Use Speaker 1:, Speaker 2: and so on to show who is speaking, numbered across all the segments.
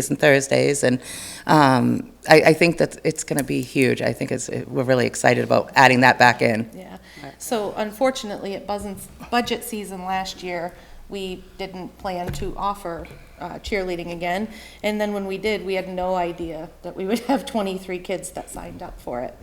Speaker 1: Tuesdays and Thursdays, and um, I, I think that it's going to be huge. I think it's, we're really excited about adding that back in.
Speaker 2: Yeah, so unfortunately, at buzzin- budget season last year, we didn't plan to offer uh, cheerleading again. And then when we did, we had no idea that we would have 23 kids that signed up for it.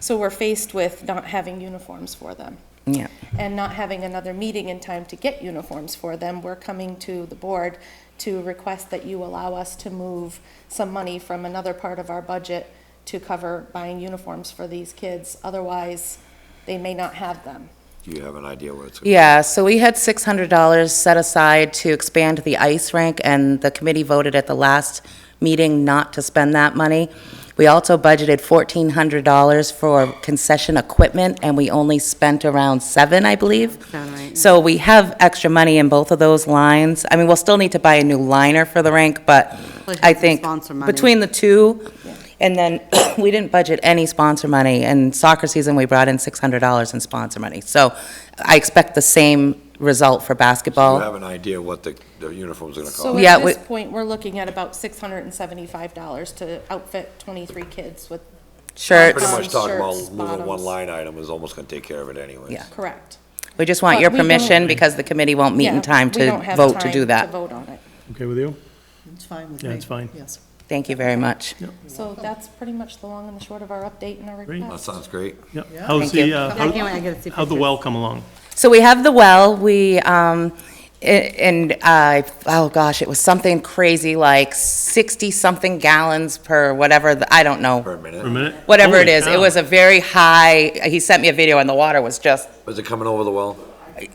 Speaker 2: So we're faced with not having uniforms for them
Speaker 1: Yeah,
Speaker 2: and not having another meeting in time to get uniforms for them, we're coming to the board to request that you allow us to move some money from another part of our budget to cover buying uniforms for these kids, otherwise they may not have them.
Speaker 3: Do you have an idea what it's?
Speaker 1: yeah. So we had six hundred dollars set aside to expand the ice rink, and the committee voted at the last meeting not to spend that money. We also budgeted fourteen hundred dollars for concession equipment, and we only spent around seven, I believe.
Speaker 4: Sound right.
Speaker 1: So we have extra money in both of those lines. I mean, we'll still need to buy a new liner for the rink, but
Speaker 4: Well, it's
Speaker 1: I
Speaker 4: the
Speaker 1: think
Speaker 4: sponsor money.
Speaker 1: between the two, and then we didn't budget any sponsor money. And soccer season, we brought in $600 in sponsor money. So I expect the same result for
Speaker 3: Do you
Speaker 1: basketball.
Speaker 3: have an idea what the, the uniforms are gonna
Speaker 2: So
Speaker 3: cost?
Speaker 1: Yeah,
Speaker 2: at this
Speaker 1: we-
Speaker 2: point, we're looking at about six hundred and seventy-five dollars to outfit twenty-three kids with,
Speaker 1: Shirts,
Speaker 3: Pretty much talking about
Speaker 2: Shirts,
Speaker 3: moving one
Speaker 2: bottoms.
Speaker 3: line item is almost gonna take care of it anyways.
Speaker 1: Yeah.
Speaker 2: correct.
Speaker 1: we just want
Speaker 2: But
Speaker 1: your
Speaker 2: we don't-
Speaker 1: permission because the committee won't meet
Speaker 2: Yeah,
Speaker 1: in time
Speaker 2: we don't
Speaker 1: to
Speaker 2: have
Speaker 1: vote to
Speaker 2: time
Speaker 1: do
Speaker 2: To
Speaker 1: that.
Speaker 2: vote on it.
Speaker 5: Okay with you?
Speaker 6: It's fine with me.
Speaker 5: Yeah, it's fine.
Speaker 6: Yes.
Speaker 1: Thank you very much.
Speaker 2: So that's pretty much the long and the short of our update and our
Speaker 5: Great.
Speaker 3: That
Speaker 2: request.
Speaker 3: sounds great.
Speaker 5: Yeah.
Speaker 6: Yeah.
Speaker 5: How's
Speaker 1: Thank
Speaker 5: the,
Speaker 1: you.
Speaker 5: uh,
Speaker 4: Yeah, I can't wait, I gotta see
Speaker 5: how- how'd the well come along?
Speaker 1: So we have the well, we, um, a- and I, oh gosh, it was something crazy like 60-something gallons per whatever, the- I don't
Speaker 3: For
Speaker 1: know,
Speaker 3: a
Speaker 5: For a
Speaker 3: minute.
Speaker 5: minute?
Speaker 1: whatever it
Speaker 5: Holy
Speaker 1: is. It
Speaker 5: cow.
Speaker 1: was a very high, he sent me a video and the water was just,
Speaker 3: Was it coming over the well?
Speaker 1: I-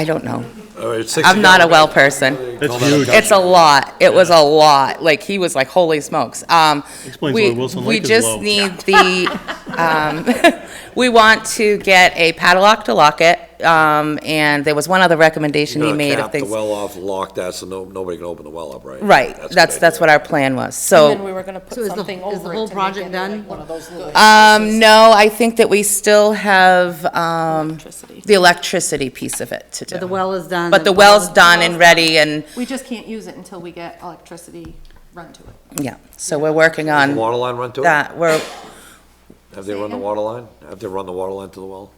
Speaker 1: I don't know.
Speaker 3: Or it's 60
Speaker 1: I'm not a
Speaker 3: gallons?
Speaker 1: well person.
Speaker 5: That's
Speaker 3: Call that a
Speaker 5: huge.
Speaker 3: gush.
Speaker 1: It's a lot, it was a lot, like, he was like, holy smokes. Um,
Speaker 5: Explains
Speaker 1: we-
Speaker 5: why Wilson Lake is
Speaker 1: We
Speaker 5: low.
Speaker 1: just need the, um, we want to get a padlock to lock it, um, and there was one other recommendation he
Speaker 3: You're
Speaker 1: made
Speaker 3: gonna
Speaker 1: of
Speaker 3: cap the
Speaker 1: things.
Speaker 3: well off, lock that, so no, nobody can open the well up, right?
Speaker 1: Right,
Speaker 3: a good
Speaker 1: that's, that's
Speaker 3: idea.
Speaker 1: what our plan was,
Speaker 2: And then
Speaker 1: so,
Speaker 2: we were gonna put
Speaker 4: So is the-
Speaker 2: something
Speaker 4: is
Speaker 2: over it
Speaker 4: the
Speaker 2: to
Speaker 4: whole
Speaker 2: make
Speaker 4: project
Speaker 2: it
Speaker 4: done?
Speaker 2: like One of those little
Speaker 1: um, no, I think that we still have, um,
Speaker 2: electricity.
Speaker 1: the electricity piece of it to
Speaker 4: But
Speaker 1: do.
Speaker 4: the well is done.
Speaker 1: But the well's done and ready, and,
Speaker 2: We just can't use it until we get electricity run to it.
Speaker 1: yeah, so we're working on
Speaker 3: Water line run to it?
Speaker 1: that, we're,
Speaker 3: Have they run the water line? Have they run the water line to the well?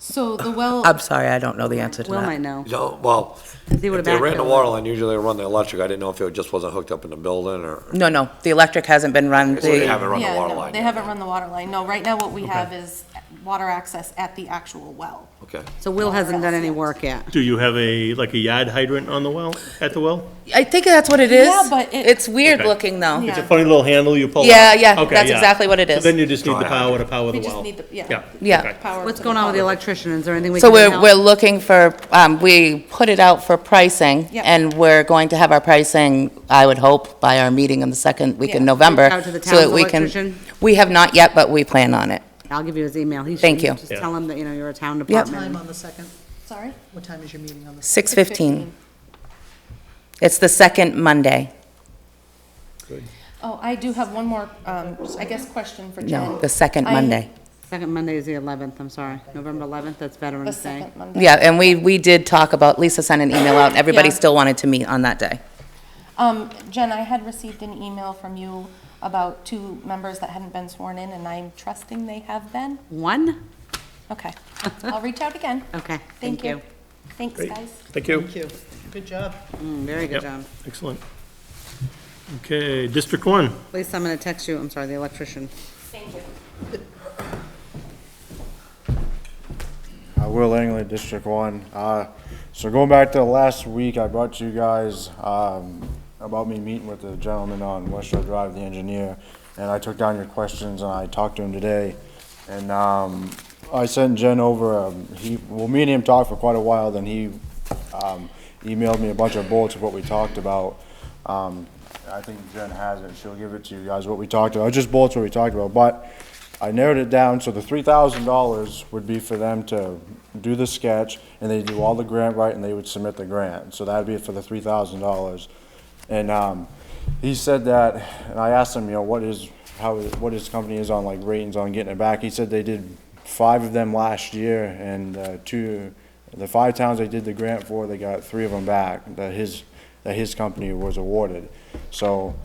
Speaker 2: So the well,
Speaker 1: I'm sorry, I don't know the answer to
Speaker 4: Will might
Speaker 1: that.
Speaker 4: know.
Speaker 3: No, well, if
Speaker 4: They
Speaker 3: they
Speaker 4: would've
Speaker 3: ran the
Speaker 4: backfilled.
Speaker 3: water line, usually they run the electric. I didn't know if it just wasn't hooked up in the building or,
Speaker 1: No, no, the electric hasn't been run,
Speaker 3: so they
Speaker 1: the,
Speaker 3: haven't run the
Speaker 2: yeah,
Speaker 3: water
Speaker 2: no,
Speaker 3: line.
Speaker 2: they
Speaker 3: yet.
Speaker 2: haven't run the water line. No, right now what we have is water access at the actual well.
Speaker 3: Okay.
Speaker 4: So Will hasn't done any work yet.
Speaker 5: Do you have a, like a yard hydrant on the well, at the well?
Speaker 1: I think that's what it is.
Speaker 2: Yeah, but it-
Speaker 1: It's weird
Speaker 5: Okay.
Speaker 1: looking, though.
Speaker 5: It's a
Speaker 2: Yeah,
Speaker 5: funny little handle you pull up?
Speaker 1: Yeah, yeah,
Speaker 5: Okay,
Speaker 1: that's exactly what it
Speaker 5: So
Speaker 1: is.
Speaker 5: then you just need the
Speaker 3: Dry
Speaker 5: power to power the
Speaker 2: we
Speaker 5: well?
Speaker 2: just need the, yeah.
Speaker 5: Yeah.
Speaker 1: Yeah.
Speaker 5: okay.
Speaker 2: power
Speaker 4: What's
Speaker 2: to
Speaker 4: going on with the
Speaker 2: power.
Speaker 4: electrician? Is there anything we can
Speaker 1: So
Speaker 4: do to
Speaker 1: we're,
Speaker 4: help?
Speaker 1: we're looking for, um, we put it out for pricing,
Speaker 2: Yep.
Speaker 1: and we're going to have our pricing, I would hope, by our meeting in the second week in
Speaker 2: Yeah.
Speaker 1: November.
Speaker 4: Reach out to the
Speaker 1: so that
Speaker 4: town's
Speaker 1: we can-
Speaker 4: electrician?
Speaker 1: We have not yet, but we plan on it.
Speaker 4: I'll give you his email. He should-
Speaker 1: Thank you.
Speaker 4: Just tell him that, you know, you're a town
Speaker 6: Time
Speaker 4: department.
Speaker 6: on the second,
Speaker 2: Sorry?
Speaker 6: what time is your meeting on the?
Speaker 1: Six fifteen. It's the second Monday.
Speaker 2: Oh, I do have one more, um, I guess, question for Jen.
Speaker 1: No, the second
Speaker 2: I-
Speaker 1: Monday.
Speaker 4: Second Monday is the 11th, I'm sorry. November 11th, that's
Speaker 2: The
Speaker 4: Veterans Day.
Speaker 2: second Monday.
Speaker 1: Yeah, and we, we did talk about, Lisa sent an email out, and everybody
Speaker 2: Yeah.
Speaker 1: still wanted to meet on that day.
Speaker 2: Um, Jen, I had received an email from you about two members that hadn't been sworn in, and I'm trusting they have been.
Speaker 4: One?
Speaker 2: Okay, I'll reach out again.
Speaker 4: Okay,
Speaker 2: Thank you. Thanks,
Speaker 5: Great.
Speaker 2: guys.
Speaker 5: Thank you.
Speaker 6: Thank you. Good job.
Speaker 4: Mm, Very
Speaker 5: Yep.
Speaker 4: good job.
Speaker 5: Excellent. Okay, District One.
Speaker 4: Lisa, I'm gonna text you, I'm sorry, the electrician.
Speaker 2: Thank you.
Speaker 7: Uh, Will Langley, District One. Uh, so going back to last week, I brought you guys, um, about me meeting with the gentleman on West Shore Drive, the engineer, and I took down your questions and I talked to him today. And, um, I sent Jen over, um, he, well, me and him talked for quite a while, then he, um, emailed me a bunch of bullets of what we talked about. Um, I think Jen has it, she'll give it to you guys, what we talked about, just bullets what we talked about, but I narrowed it down, so the three thousand dollars would be for them to do the sketch, and they do all the grant writing, they would submit the grant, so that'd be for the three thousand dollars. And, um, he said that, and I asked him, you know, what is, how, what his company is on, like, ratings on getting it back, he said they did five of them last year, and, uh, two, the five towns they did the grant for, they got three of them back, that his, that his company was awarded. So